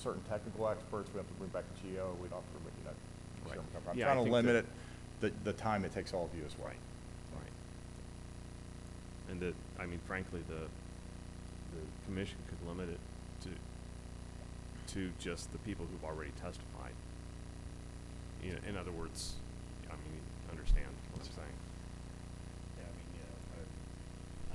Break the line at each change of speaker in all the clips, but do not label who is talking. certain technical experts, we have to bring back a GO, we'd have to bring that.
Right.
Sherman Company. I'm
Yeah, I
trying to
think
limit
that-
it, the, the time it takes all of you as well.
Right. And that, I mean, frankly, the, the commission could limit it to, to just the people who've already testified. You know, in other words, I mean, you understand what I'm saying?
Yeah, I mean, you know, I,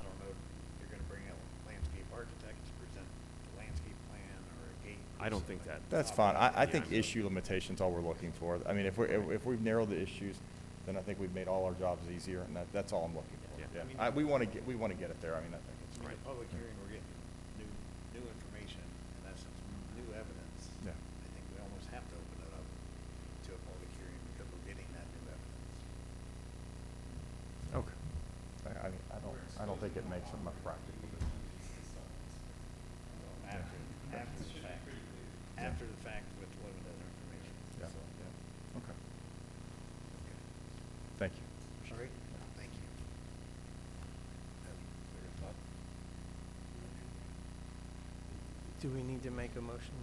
I don't know, if you're gonna bring out landscape architects, present the landscape plan or a gate. or
I don't think
something.
that-
That's fine. I, I
Yeah,
think
I'm-
issue limitation's all we're looking for. I mean, if we're, if if we've narrowed the issues, then I think we've made all our jobs easier, and that, that's all I'm looking
Yeah.
for.
Yeah.
Yeah, I, we want to get, we want to get it there. I mean, I think
I
it's.
mean,
Right.
the public hearing, we're getting new, new information, in essence, new evidence.
Yeah.
I think we almost have to open it up to a public hearing because we're getting that new evidence.
Okay. I, I mean, I don't, I don't think it makes it much practical.
So After,
Yeah.
after the fact, after the fact with limited information,
Yeah,
so.
yeah. Okay.
Okay.
Thank you.
All right, thank you. That'll clear us up.
Do we need to make a motion?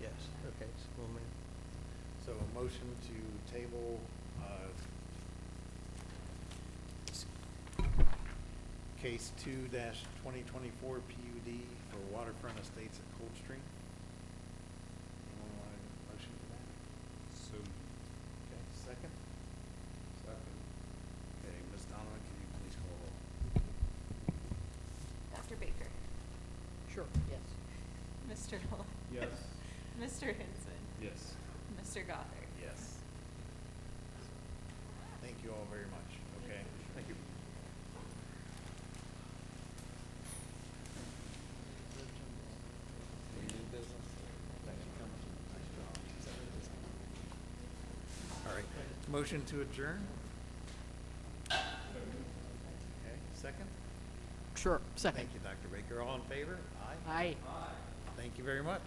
Yes, okay, so we'll make,
So a motion to table, uh, case two dash twenty twenty-four PUD for waterfront estates at Coldstream. Anyone want a motion for that?
So.
Okay, second? Second. Okay, Ms. Donovan, can you please call roll?
Dr. Baker.
Sure, yes.
Mr. Knoll.
Yes.
Mr. Hinson.
Yes.
Mr. Gothard.
Yes. Thank you all very much, okay? Thank you. All right, motion to adjourn? Okay, second?
Sure, second.
Thank you, Dr. Baker. All in favor? Aye.
Aye.
Thank you very much.